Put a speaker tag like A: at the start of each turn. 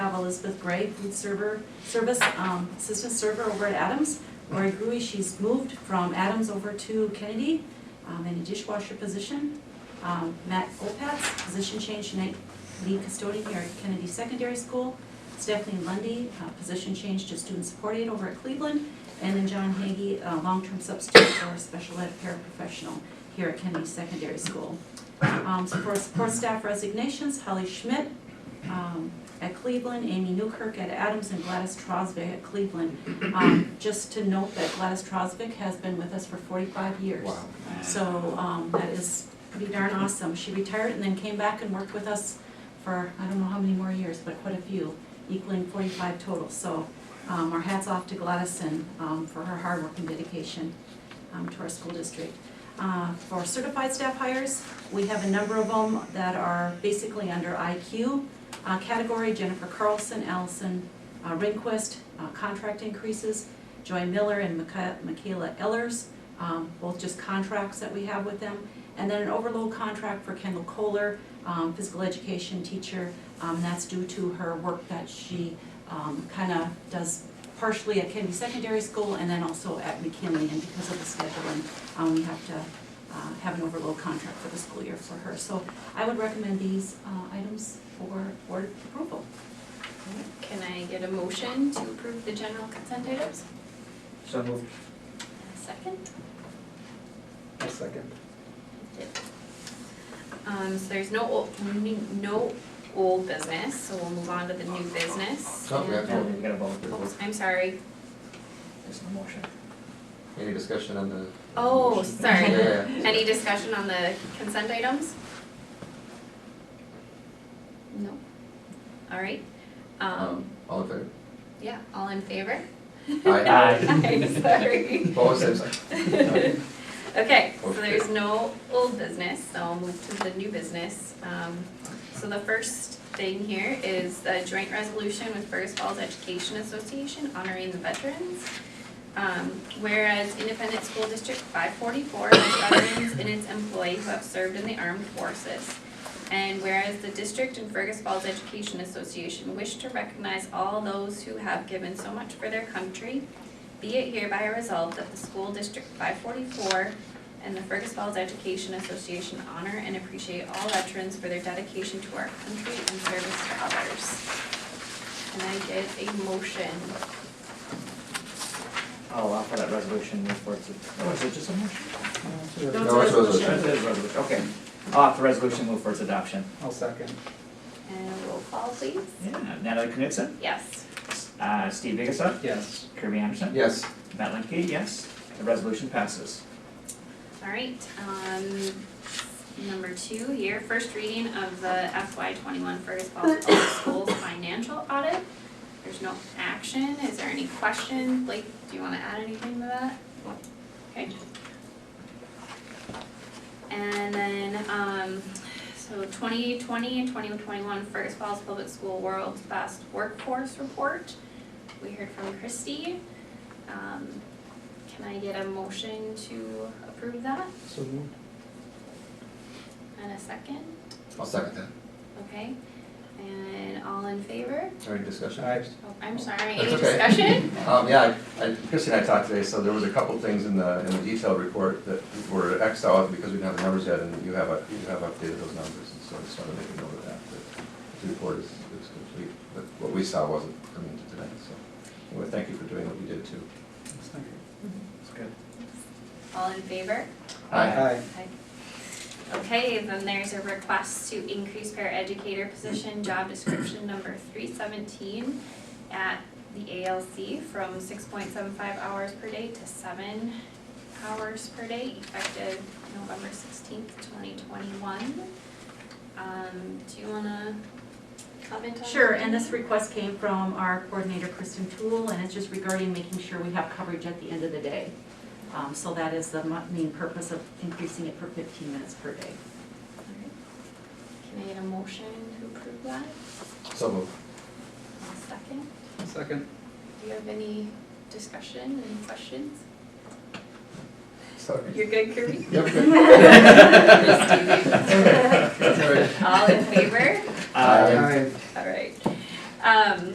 A: Elizabeth Gray, food server, service, um, assistant server over at Adams. Lori Gruey, she's moved from Adams over to Kennedy, um, in a dishwasher position. Um, Matt Opatz, position change tonight, lead custodian here at Kennedy Secondary School. Stephanie Lundy, uh, position change to student support aide over at Cleveland. And then John Hagee, uh, long-term substitute for special ed paraprofessional here at Kennedy Secondary School. Um, so for support staff resignations, Holly Schmidt, um, at Cleveland, Amy Newkirk at Adams, and Gladys Trosvik at Cleveland. Um, just to note that Gladys Trosvik has been with us for forty-five years.
B: Wow.
A: So, um, that is pretty darn awesome. She retired and then came back and worked with us for, I don't know how many more years, but quite a few, equaling forty-five total. So, um, our hats off to Gladys and, um, for her hard work and dedication, um, to our school district. Uh, for certified staff hires, we have a number of them that are basically under IQ uh, category, Jennifer Carlson, Allison uh, Rehnquist, uh, contract increases, Joy Miller and Mica- Michaela Ellers, um, both just contracts that we have with them. And then an overload contract for Kendall Kohler, um, physical education teacher. Um, That's due to her work that she kind of does partially at Kennedy Secondary School and then also at McKinley. And because of the scheduling, um, we have to uh, have an overload contract for the school year for her. So I would recommend these uh, items for board approval.
C: Can I get a motion to approve the general consent items?
B: So moved.
C: A Second?
B: A second.
C: Um, so there's no old, no old business, so we'll move on to the new business.
D: Oh, we have
B: No,
D: to-
B: we gotta vote.
C: Oops, I'm sorry.
B: There's no motion.
D: Any discussion on the?
C: Oh, sorry.
D: Yeah, yeah.
C: Any discussion on the consent items? No? All right. Um,
D: Um, all in favor?
C: yeah, all in favor?
D: Aye.
C: Aye, sorry.
D: Opposed, same sign.
C: Okay, so
D: Okay.
C: there's no old business, so I'll move to the new business. Um, so the first thing here is the joint resolution with Fergus Falls Education Association honoring the veterans. Um, whereas Independent School District five forty-four has veterans in its employ who have served in the armed forces. And whereas the district and Fergus Falls Education Association wish to recognize all those who have given so much for their country, be it hereby resolved that the school district five forty-four and the Fergus Falls Education Association honor and appreciate all veterans for their dedication to our country and service to others. And I get a motion.
B: I'll offer Oh, that resolution for, oh, is it just a motion? No, it's a-
A: No, it's a resolution.
B: It is a resolution, okay. I'll offer the resolution, move for its adoption.
E: I'll second.
C: And a roll call, please.
B: Yeah, Natalie Knudsen,
C: Yes.
B: uh, Steve Vigasa,
E: Yes.
B: Kirby Anderson.
D: Yes,
B: Matt Lemke, yes. The resolution passes.
C: All right, um, number two here, first reading of the FY twenty-one Fergus Falls Public Schools financial audit. There's no action, is there any question? Blake, do you wanna add anything to that? Okay. And then, um, so twenty twenty and twenty twenty-one Fergus Falls Public School World's Best Workforce Report. We heard from Christie. Um, can I get a motion to approve that
E: So moved.
C: and a second?
D: I'll second that.
C: Okay, and all in favor?
D: Any discussion?
E: Aye.
C: Oh, I'm sorry, any
D: That's okay.
C: discussion?
D: Um, yeah, I, I- Chrissy and I talked today, so there was a couple things in the, in the detailed report that were Xed out because we didn't have the numbers yet, and you have, up- you have updated those numbers, and so I just wanted to make a note of that, that the report is, is complete, but what we saw wasn't coming to tonight, so. Anyway, thank you for doing what you did too.
B: That's good.
C: All in favor?
D: Aye.
E: Aye.
C: Okay. Okay, then there's a request to increase para educator position, job description number three seventeen at the ALC from six point seven five hours per day to seven hours per day effective November sixteenth, twenty twenty-one. Um, do you wanna comment on that?
A: Sure, and this request came from our coordinator, Kristen Toole, and it's just regarding making sure we have coverage at the end of the day. Um, So that is the mu- main purpose of increasing it for fifteen minutes per day.
C: Alright. Can I get a motion to approve that?
D: So moved.
C: A second?
E: Second.
C: Do you have any discussion, any questions?
D: Sorry.
C: You're good, Kirby?
D: Yep, good.
C: All in favor?
D: Aye.
B: Uh,
C: All right. Um,